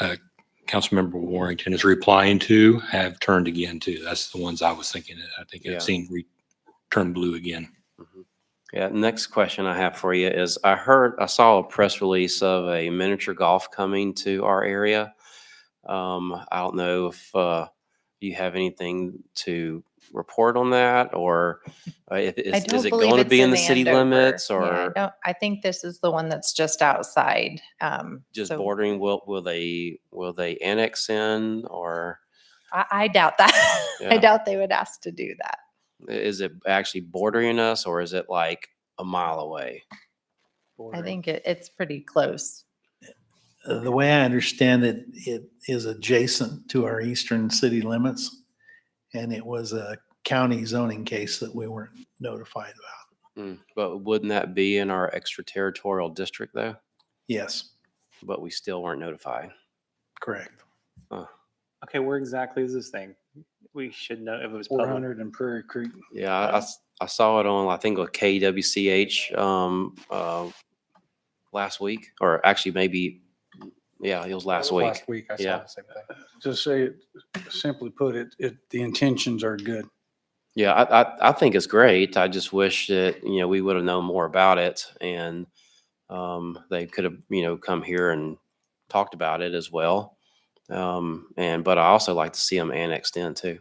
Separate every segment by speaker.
Speaker 1: uh, Councilmember Warrington is replying to have turned again too. That's the ones I was thinking. of. I think
Speaker 2: Yeah.
Speaker 1: I've seen re- turn blue again.
Speaker 2: Yeah, next question I have for you is, I heard, I saw a press release of a miniature golf coming to our area. Um, I don't know if, uh, you have anything to report on that, or uh, if,
Speaker 3: I
Speaker 2: is,
Speaker 3: don't
Speaker 2: is it
Speaker 3: believe
Speaker 2: going to
Speaker 3: it's
Speaker 2: be in the city
Speaker 3: Andover.
Speaker 2: limits
Speaker 3: Yeah, I
Speaker 2: or
Speaker 3: don't- I think this is the one that's just outside. um,
Speaker 2: just
Speaker 3: so
Speaker 2: bordering? Will, will they, will they annex in or
Speaker 3: I, I doubt that.
Speaker 2: Yeah.
Speaker 3: I doubt they would ask to do that.
Speaker 2: i- is it actually bordering us or is it like a mile away?
Speaker 3: I think it, it's pretty close.
Speaker 4: Uh, The way I understand it, it is adjacent to our eastern city limits. And it was a county zoning case that we weren't notified about.
Speaker 2: Mm, But wouldn't that be in our extraterritorial district though?
Speaker 4: Yes,
Speaker 2: But we still weren't notified.
Speaker 4: correct.
Speaker 5: Okay, where exactly is this thing? We should know if it was
Speaker 4: Four
Speaker 5: public.
Speaker 4: hundred and Prairie Creek.
Speaker 2: Yeah, I- I, s- I saw it on, I think, a KWCH um, uh, last week, or actually maybe, yeah, it was last week.
Speaker 6: Last week, I saw
Speaker 2: Yeah.
Speaker 6: the same thing. Just say, it simply put, it, it, the intentions are good.
Speaker 2: Yeah, I, I, I think it's great. I just wish that, you know, we would have known more about it and um, they could have, you know, come here and talked about it as well. Um, and, but I also like to see them annexed in too.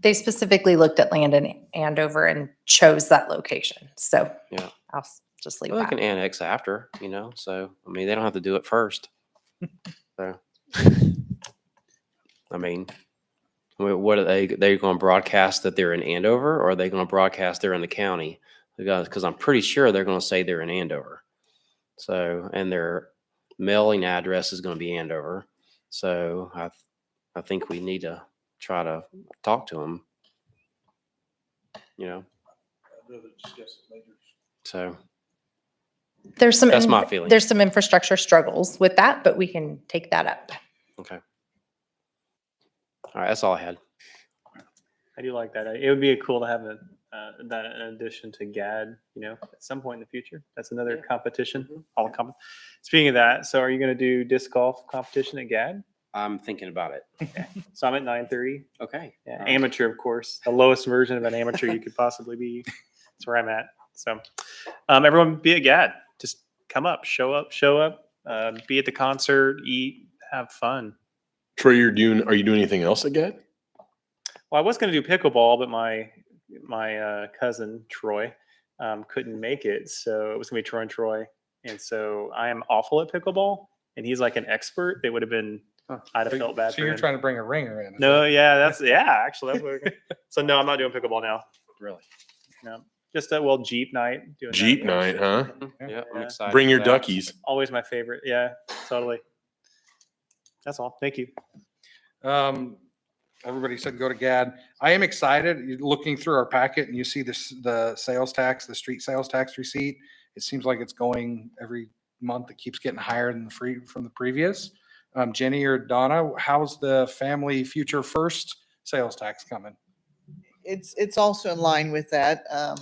Speaker 3: They specifically looked at land in Andover and chose that location. So
Speaker 2: Yeah.
Speaker 3: I'll s- just leave
Speaker 2: Well, they
Speaker 3: that.
Speaker 2: can annex after, you know, so, I mean, they don't have to do it first. So, I mean, wha- what are they, they're going to broadcast that they're in Andover or are they going to broadcast they're in the county? Because, because I'm pretty sure they're going to say they're in Andover. So, and their mailing address is going to be Andover. So I, th- I think we need to try to talk to them. You know, so,
Speaker 3: There's some.
Speaker 2: That's
Speaker 3: inf-
Speaker 2: my feeling.
Speaker 3: There's some infrastructure struggles with that, but we can take that up.
Speaker 2: all right, that's all I had.
Speaker 5: I do like that. It would be cool to have a uh, that in addition to GAD. You know, at some point in the future, that's another competition. All comp- Speaking of that, so are you going to do disc golf competition at GAD?
Speaker 2: I'm thinking about it.
Speaker 5: So I'm at nine thirty.
Speaker 2: Okay.
Speaker 5: Yeah,
Speaker 2: All right.
Speaker 5: amateur, of course, the lowest version of an amateur you could possibly be. That's where I'm at. So, um, everyone, be a gad. Just come up, show up, show up. Uh, be at the concert, eat, have fun.
Speaker 7: Troy, you're doing, are you doing anything else again?
Speaker 5: Well, I was going to do pickleball, but my my uh, cousin Troy um, couldn't make it, so it was going to be Troy and Troy. And so I am awful at pickleball, and he's like an expert. They would have been. I'd have felt bad
Speaker 6: So
Speaker 5: for
Speaker 6: you're
Speaker 5: him.
Speaker 6: trying to bring a ringer in. is
Speaker 5: No,
Speaker 6: it?
Speaker 5: yeah, that's yeah. Actually, that's what we're gonna- so no, I'm not doing pickleball now.
Speaker 2: Really?
Speaker 5: No, just a well Jeep night. Doing that.
Speaker 7: Jeep night, huh?
Speaker 2: Yeah, I'm
Speaker 5: Yeah.
Speaker 2: excited.
Speaker 7: Bring
Speaker 2: for
Speaker 7: your
Speaker 2: that.
Speaker 7: duckies.
Speaker 5: Always my favorite. Yeah, totally. That's all. Thank you.
Speaker 6: Um, everybody said go to GAD. I am excited. You're Looking through our packet and you see this, the sales tax, the street sales tax receipt. It seems like it's going every month. It keeps getting higher than the free from the previous. Um, Jenny or Donna, how's the family future first sales tax coming?
Speaker 8: it's it's also in line with that. Um,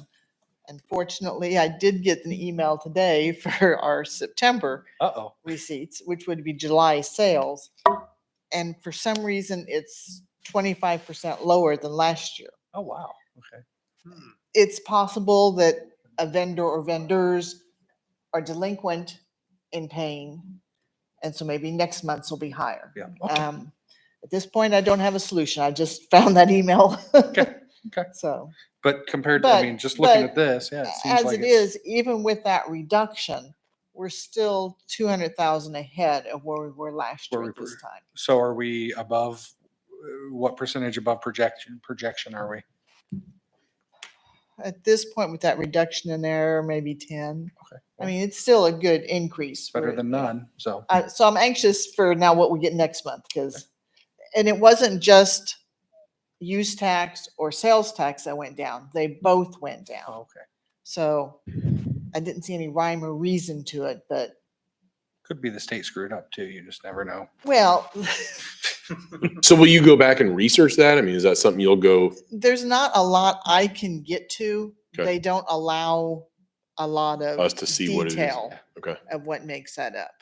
Speaker 8: unfortunately, I did get an email today for our September
Speaker 6: Uh-oh.
Speaker 8: receipts, which would be July sales, and for some reason, it's twenty five percent lower than last year.
Speaker 6: Oh, wow. Okay.
Speaker 8: It's possible that a vendor or vendors are delinquent in paying, and so maybe next month's will be higher.
Speaker 6: Yeah.
Speaker 8: Um, at this point, I don't have a solution. I just found that email.
Speaker 6: Okay, okay.
Speaker 8: So.
Speaker 6: But compared, to I
Speaker 8: But-
Speaker 6: mean, just looking
Speaker 8: but
Speaker 6: at this, yeah, it seems
Speaker 8: as
Speaker 6: like
Speaker 8: it
Speaker 6: it's
Speaker 8: is, even with that reduction, we're still two hundred thousand ahead of where we were last
Speaker 6: Where
Speaker 8: year at
Speaker 6: we
Speaker 8: this
Speaker 6: were.
Speaker 8: time.
Speaker 6: So are we above, uh, what percentage above projection, projection are we?
Speaker 8: At this point, with that reduction in there, maybe ten.
Speaker 6: Okay,
Speaker 8: I
Speaker 6: well-
Speaker 8: mean, it's still a good increase.
Speaker 6: Better
Speaker 8: for-
Speaker 6: than none, so.
Speaker 8: Uh, so I'm anxious for now what we get next month, because, and it wasn't just use tax or sales tax that went down. They both went down.
Speaker 6: Oh, Okay.
Speaker 8: So I didn't see any rhyme or reason to it, but
Speaker 6: Could be the state screwed up too, you just never know.
Speaker 8: well,
Speaker 7: So will you go back and research that? I mean, is that something you'll go?
Speaker 8: there's not a lot I can get to.
Speaker 7: Okay.
Speaker 8: They don't allow a lot of
Speaker 7: Us to see what it is.
Speaker 8: detail
Speaker 7: Okay.
Speaker 8: of what makes that up.